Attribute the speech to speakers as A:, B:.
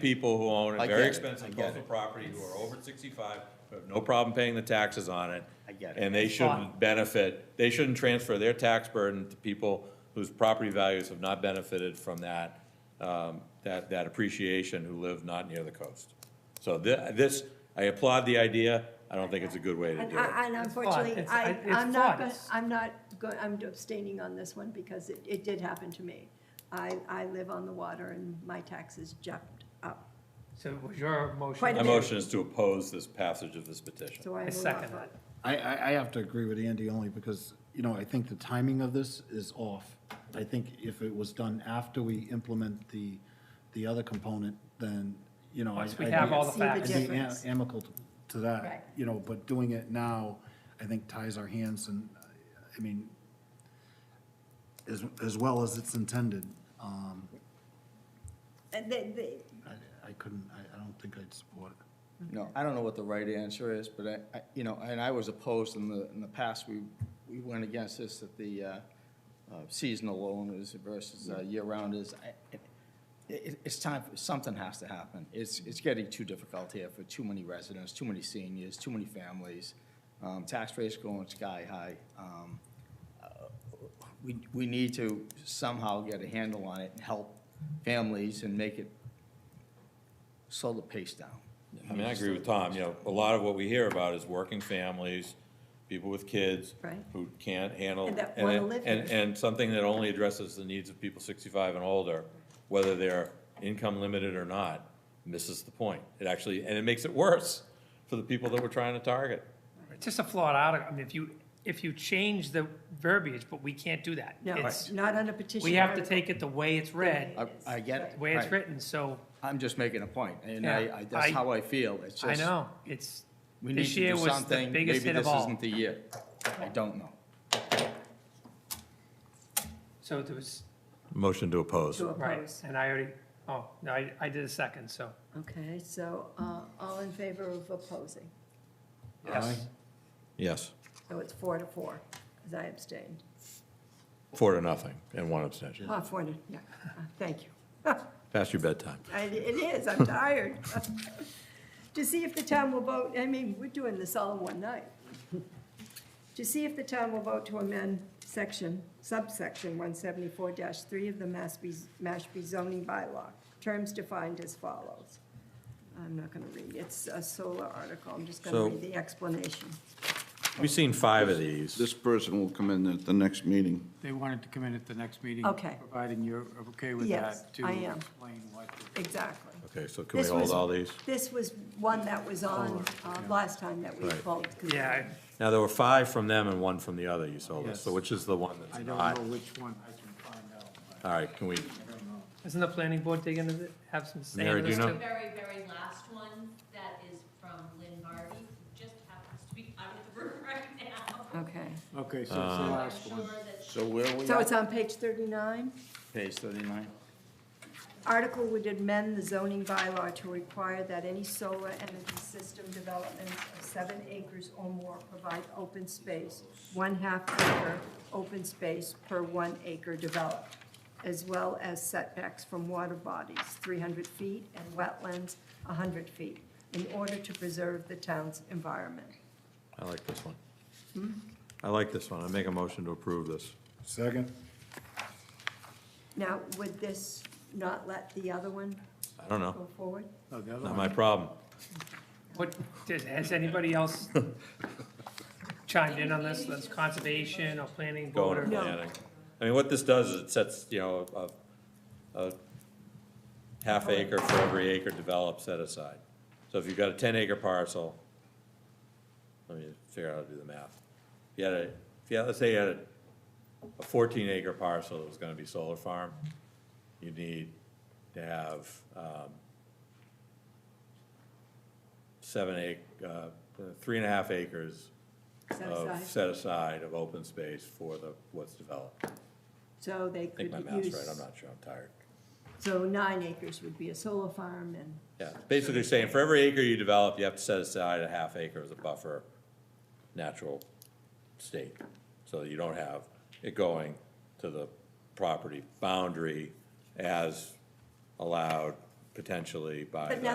A: people who own
B: I
A: a very
B: get it, I
A: expensive
B: get
A: coastal
B: it.
A: property who are over sixty-five, who have no problem paying the taxes on it.
B: I get it.
A: And they shouldn't benefit, they shouldn't transfer their tax burden to people whose property values have not benefited from that, um, that, that appreciation who live not near the coast. So thi- this, I applaud the idea, I don't think it's a good way to
C: And
A: do it.
C: I- and unfortunately,
D: It's fun.
C: I,
D: It's- it's
C: I'm not,
D: fun.
C: gonna-
D: It's-
C: I'm not, go- I'm abstaining on this one because it, it did happen to me. I, I live on the water and my taxes jumped up,
D: So was your motion?
C: Quite
A: My
C: a
A: motion is to oppose this passage of this petition.
C: so I
D: I
C: will not
D: second
C: vote.
E: I, I, I have to agree with Andy only because, you know, I think the timing of this is off. I think if it was done after we implement the, the other component, then, you know. I-
D: Once we
E: I'd
D: have
E: be-
D: all the
C: See the
E: I'd
D: facts.
E: be am-
C: difference.
E: Amicable to
C: Right.
E: that, you know, but doing it now, I think ties our hands and, I mean, as, as well as it's intended, um,
C: And they, they,
E: I, I couldn't, I, I don't think I'd support it.
B: No, I don't know what the right answer is, but I- I, you know, and I was opposed in the, in the past, we, we went against this, that the uh, uh, seasonal owners versus uh, year-rounders. I- It, it- it's time, for- something has to happen. It's, it's getting too difficult here for too many residents, too many seniors, too many families. Um, Tax rates going sky high. Um, uh, We, we need to somehow get a handle on it and help families and make it, slow the pace down.
A: I mean, I agree with Tom, you know, a lot of what we hear about is working families, people with kids.
C: Right.
A: Who can't handle.
C: And that wanna
A: and-
C: live
A: And,
C: here.
A: and something that only addresses the needs of people sixty-five and older, whether they're income limited or not, misses the point. It actually, and it makes it worse for the people that we're trying to target.
D: It's just a flawed article. I mean, if you, if you change the verbiage, but we can't do that.
C: no,
D: It's-
C: not on a petition.
D: We have to
C: article.
D: take it the way it's read,
B: I, I get it.
D: the way it's
B: Right.
D: written, so
B: I'm just making a point, and I,
D: Yeah.
B: I, that's
D: I-
B: how I feel, it's
D: I
B: just.
D: know, it's,
B: We need
D: this
B: to
D: year
B: do
D: was the
B: something, maybe
D: biggest hit
B: this
D: of all.
B: isn't the year, I don't know.
D: So there was,
A: Motion to oppose.
C: To
D: right,
C: oppose.
D: and I already, oh, no, I, I did a second, so,
C: Okay, so, uh, all in favor of opposing?
D: yes.
A: Yes,
C: So it's four to four, because I abstained.
A: four to nothing and one abstention.
C: Oh, four to, yeah, Uh, thank you.
A: Past your bedtime.
C: I- It is, I'm tired. To see if the town will vote, I mean, we're doing this all in one night. To see if the town will vote to amend section, subsection one seventy-four three of the Mashpee, Mashpee zoning bylaw, terms defined as follows. I'm not gonna read, it's a solar article, I'm just gonna
A: So-
C: read the explanation.
A: We've seen five of these.
F: This person will come in at the next meeting.
G: They wanted to come in at the next meeting.
C: Okay.
G: Providing you're okay with
C: Yes,
G: that, to
C: I am.
G: explain what the
C: Exactly.
A: Okay, so can we
C: This
A: hold
C: was-
A: all these?
C: This was one that was on, uh, last time that we
A: Right.
C: pulled.
D: Yeah,
A: Now, there were five from them and one from the other, you sold us, so
G: Yes.
A: which is the one that's
G: I
A: not?
G: don't know which one I can find out. but
A: All right, can we,
G: I don't know.
D: isn't the planning board taking, it- have some say
A: Mary,
D: in
A: do
D: this
A: you know?
D: too?
H: The very, very last one, that is from Lynn Barbie, who just happens to be out of the room right now.
C: Okay,
G: Okay, so it's the last
H: I'm
G: one.
H: sure that
B: So where are we
C: so
B: at?
C: it's on page thirty-nine?
B: Page thirty-nine.
C: Article would amend the zoning bylaw to require that any solar energy system developments of seven acres or more provide open space, one-half acre open space per one acre developed, as well as setbacks from water bodies, three hundred feet, and wetlands, hundred feet, in order to preserve the town's environment.
A: I like this one. I like this one, I make a motion to approve this.
E: Second?
C: Now, would this not let the other one
A: I don't know,
C: go forward?
G: Oh, the other
A: not
G: one.
A: my problem.
D: What, did- has anybody else chimed in on this, That's conservation or planning
A: Going
D: board? or-
A: to
C: No.
A: planning. I mean, what this does is it sets, you know, a, a half acre for every acre developed set aside. So if you've got a ten acre parcel, let me figure out how to do the math. If you had a, if you had, let's say you had a- a fourteen acre parcel that was gonna be solar farm, you need to have, um, seven ac, uh, three and a half acres
C: Set
A: of,
C: aside.
A: set aside of open space for the, what's developed. I
C: So they could
A: think
C: use.
A: my math's right, I'm not sure, I'm tired.
C: So nine acres would be a solar farm and,
A: Yeah, it's basically saying for every acre you develop, you have to set aside a half acre as a buffer, natural state. So you don't have it going to the property boundary as allowed potentially by
C: But
A: the-
C: now